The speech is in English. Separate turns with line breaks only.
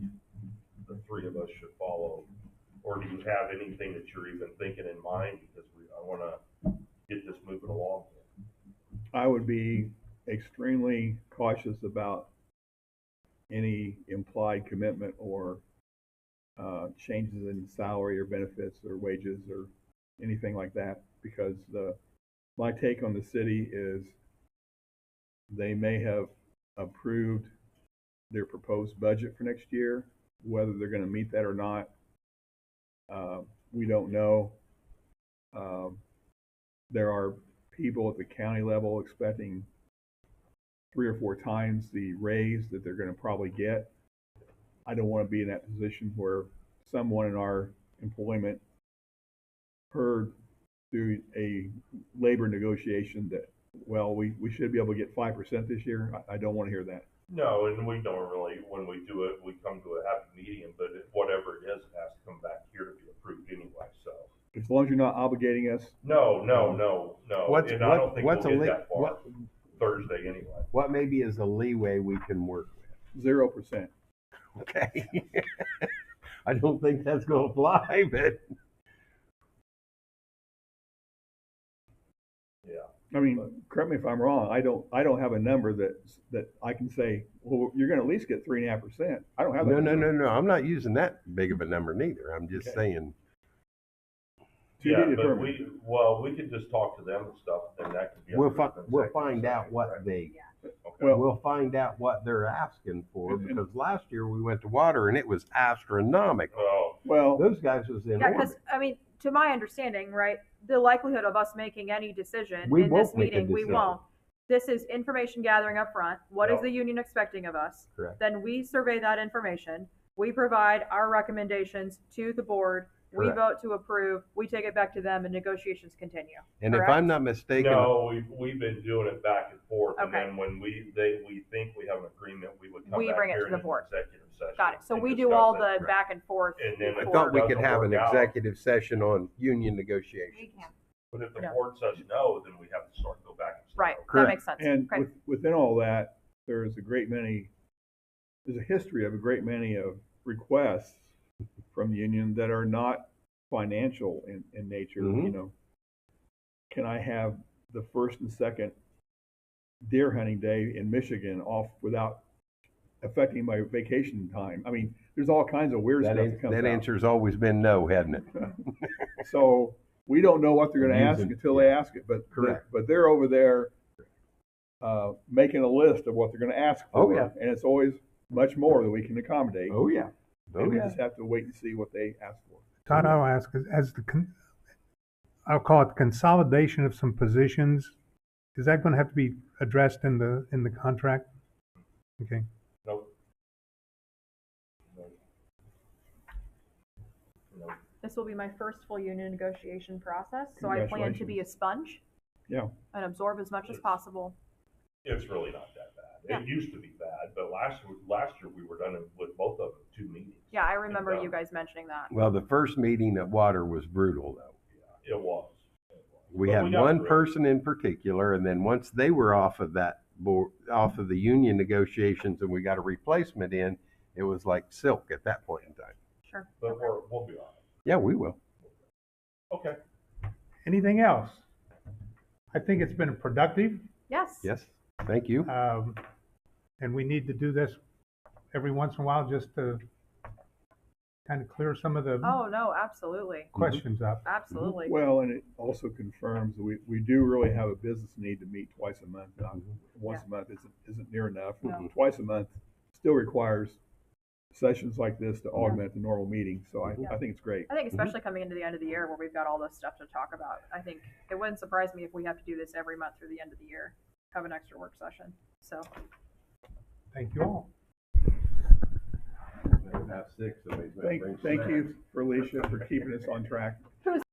us should follow? Or do you have anything that you're even thinking in mind? Because we, I wanna get this moving along.
I would be extremely cautious about any implied commitment or uh, changes in salary or benefits or wages or anything like that, because the, my take on the city is they may have approved their proposed budget for next year, whether they're gonna meet that or not, uh, we don't know. Um, there are people at the county level expecting three or four times the raise that they're gonna probably get. I don't wanna be in that position where someone in our employment heard through a labor negotiation that, well, we, we should be able to get five percent this year. I, I don't wanna hear that.
No, and we don't really, when we do it, we come to a happy medium, but it- whatever it is, it has to come back here to be approved anyway, so.
As long as you're not obligating us,
No, no, no, no,
What's-
and I
what-
don't think we'll
what's a
get
li-
that far
what-
Thursday anyway.
What maybe is the leeway we can work with,
zero percent.
okay? I don't think that's gonna fly, but
Yeah,
I mean, correct me if I'm wrong. I don't, I don't have a number that, that I can say, well, you're gonna at least get three and a half percent. I don't have that.
no, no,
number.
no, no, I'm not using that big of a number neither. I'm just
Okay.
saying,
To be
yeah, but
determined.
we, well, we could just talk to them and stuff, and that could be.
we'll
approved
fi-
in
we'll
second
find out
session,
what
right?
they,
Okay.
Well-
we'll find out what they're asking for,
And- and-
because last year we went to water and it was astronomical.
Well,
Well,
Those guys was in
Yeah, because
orbit.
I mean, to my understanding, right, the likelihood of us making any decision
We
in this
won't make a
meeting, we
decision.
won't. This is information gathering up front. What is
No.
the union expecting of us?
Correct.
Then we survey that information. We provide our recommendations to the board. We
Correct.
vote to approve. We take it back to them, and negotiations continue.
And if
correct?
I'm not mistaken,
no, we've, we've been doing it back and forth, and
Okay.
then when we, they, we think we have an agreement, we would come
We
back
bring it
here
to
in
the
an
board.
executive session.
Got it. So
and
we do all
discuss
the
it.
Right.
back and forth.
And then
I
if
thought
it
we could
doesn't
have an
work out-
executive session on union negotiations.
But if the
No.
board says no, then we have to start, go back and. start
Right.
Correct.
That makes sense.
and
Okay.
with, within all that, there is a great many, there's a history of a great many of requests from the union that are not financial in, in nature,
Mm-hmm.
you
Mhm.
know. Can I have the first and second deer hunting day in Michigan off without affecting my vacation time? I mean, there's all kinds of weird
That,
stuff
an-
that comes
that
out.
answer's always been no, hasn't it?
So we don't know what they're gonna ask
Using-
until they ask it, but,
Correct.
but they're over there uh, making a list of what they're gonna ask
Oh,
for,
yeah.
and it's always much more than we can accommodate.
Oh, yeah.
And
Oh,
we
yeah.
just have to wait and see what they ask for.
Todd, I'll ask, is- as the, con- I'll call it consolidation of some positions, is that gonna have to be addressed in the, in the contract? Okay,
Nope. Nope. Nope.
This will be my first full union negotiation process, so I plan to be a sponge
Yeah,
and absorb as much as possible.
It's really not that bad.
Yeah.
It used to be bad, but last, last year we were done it with both of them, two meetings.
Yeah, I remember
Yeah.
you guys mentioning that.
Well, the first meeting at Water was brutal, though.
It was.
We
But
had
we got
one
through it.
person in particular, and then once they were off of that board, off of the union negotiations, and we got a replacement in, it was like silk at that point in time.
Sure.
But we're, we'll be all
Yeah, we will.
right. Okay.
anything else? I think it's been productive,
Yes.
Yes, thank you.
um, and we need to do this every once in a while just to kind of clear some of the
Oh, no, absolutely.
questions up.
Absolutely.
well, and it also confirms that we, we do really have a business need to meet twice a month. Not-
Mhm.
Once a month isn't, isn't near enough.
No.
Twice a month still requires sessions like this to augment the normal meeting, so I,
Mm-hmm.
I think it's great.
I think especially coming into the end of the year where we've got all this stuff to talk about, I think it wouldn't surprise me if we have to do this every month through the end of the year, have an extra work session. So,
Thank you all.
Thank, thank you, for Alicia, for keeping us on track.